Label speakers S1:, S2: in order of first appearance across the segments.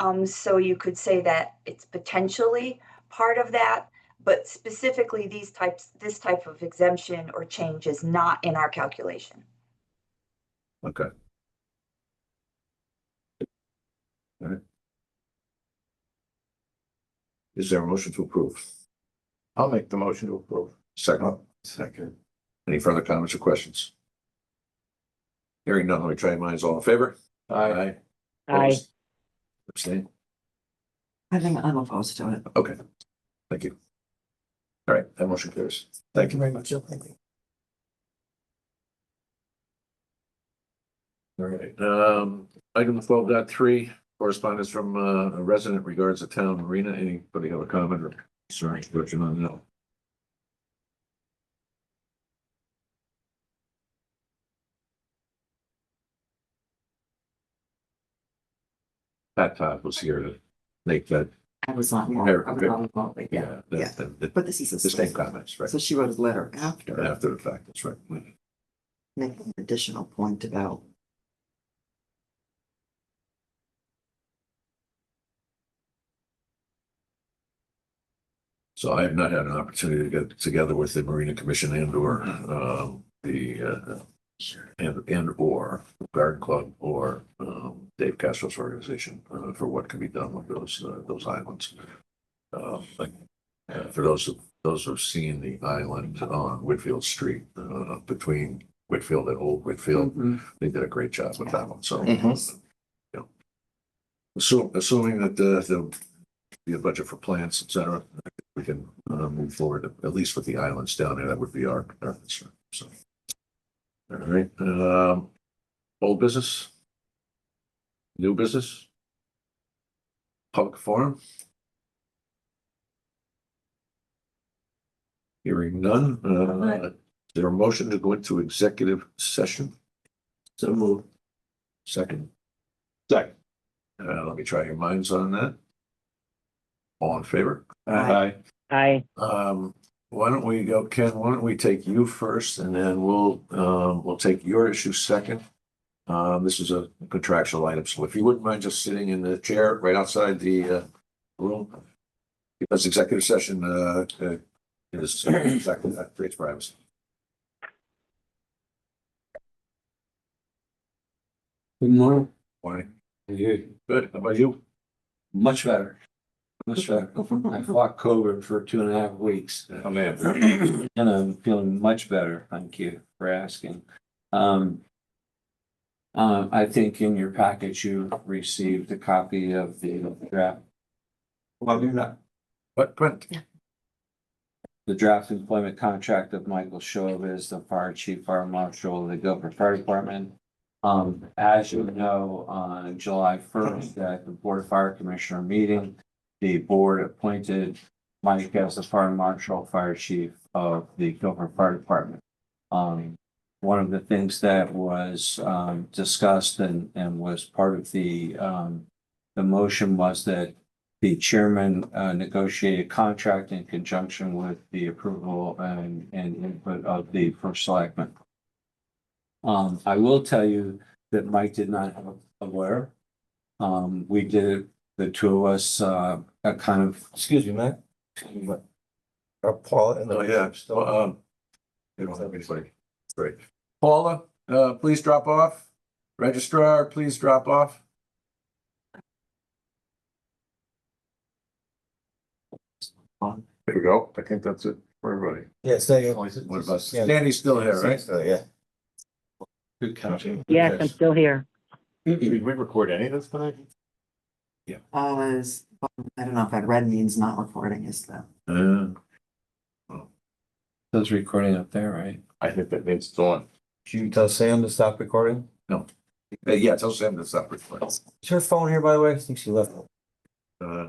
S1: Um, so you could say that it's potentially part of that, but specifically these types, this type of exemption or change is not in our calculation.
S2: Okay. Alright. Is there a motion to approve?
S3: I'll make the motion to approve. Oh,
S2: Second,
S3: Second.
S2: any further comments or questions? Hearing none, let me try your minds. All in favor?
S3: Aye.
S4: Aye.
S2: Opposed? Abstain?
S4: I think I'm opposed to it.
S2: Okay, thank you. All right, that motion carries. Thank you.
S4: very much.
S2: All right, um, item twelve dot three, correspondence from uh, a resident regards the town marina. Anybody have a comment or concern, question on that? Pat Todd was here to make that,
S4: I was on, I
S2: Very-
S4: was on remotely, yeah.
S2: yeah, that, that, that-
S4: But this is.
S2: the same comments, right?
S4: So she wrote a letter after,
S2: After the fact, that's right.
S4: making an additional point about.
S2: So I have not had an opportunity to get together with the Marina Commission and or, um, the, uh, and, and or Garden Club or, um, Dave Castro's organization, uh, for what can be done with those, uh, those islands. Um, like, uh, for those, who- those who've seen the island on Whitfield Street, uh, between Whitfield and Old Whitfield, they did a great job with that one, so.
S4: Mhm.
S2: Assume, assuming that the, the, the budget for plants, et cetera, we can, uh, move forward, at least with the islands down there, that would be our, our concern, so. All right, um, old business? New business? Public forum? Hearing none, uh, is there a motion to go into executive session? So move. Second?
S3: Second.
S2: Uh, let me try your minds on that. All in favor?
S3: Aye.
S5: Aye,
S2: Um, why don't we go, Ken, why don't we take you first and then we'll, um, we'll take your issue second. Um, this is a contractual item, so if you wouldn't mind just sitting in the chair right outside the, uh, room. Because executive session, uh, uh, is, exactly, that creates privacy.
S6: Good morning.
S2: Why?
S6: You,
S2: Good, how about you?
S6: much better. Much better. I fought COVID for two and a half weeks
S2: Oh, man.
S6: and I'm feeling much better. Thank you for asking. Um. uh, I think in your package, you received a copy of the draft. Well, you're not.
S2: What, Brent?
S6: The draft employment contract of Michael Chauvis, the fire chief, fire marshal, of the Guilford Fire Department. Um, as you know, on July first, at the Board of Fire Commissioner meeting, the board appointed Mike as the fire marshal, fire chief of the Guilford Fire Department. Um, one of the things that was, um, discussed and, and was part of the, um, the motion was that the chairman uh, negotiated contract in conjunction with the approval and, and input of the first selectman. Um, I will tell you that Mike did not have a lawyer. Um, we did, the two of us, uh, a kind of, excuse me, Matt.
S3: Uh, Paul and
S2: Oh, yeah, so, um, you don't have anybody. Great. Paula, uh, please drop off. Registrar, please drop off. There we go. I think that's it for everybody.
S3: Yeah, stay.
S2: What about, Sandy's still here, right?
S3: Yeah.
S6: Good catch.
S5: yes, I'm still here.
S3: Did we record any of this tonight?
S4: Uh, is- I don't know if that red means not recording is the,
S2: Uh,
S6: Those recording up there, right?
S3: I think that means it's on. Should you tell Sam to stop recording?
S2: Uh, yeah, tell Sam to stop recording.
S3: Is her phone here, by the way? I think she left.
S2: Uh,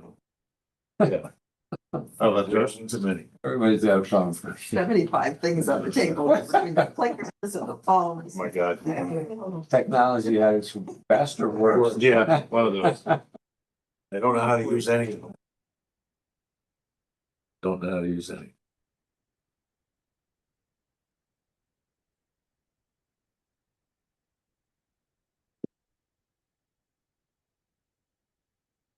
S3: Oh,
S2: questions and many.
S6: Everybody's got a phone.
S4: seventy-five things on the table, between the clickers and the phones.
S3: Oh God.
S6: Technology at its best or worst.
S3: Yeah, one of those.
S2: They don't know how to use any of them. Don't know how to use any.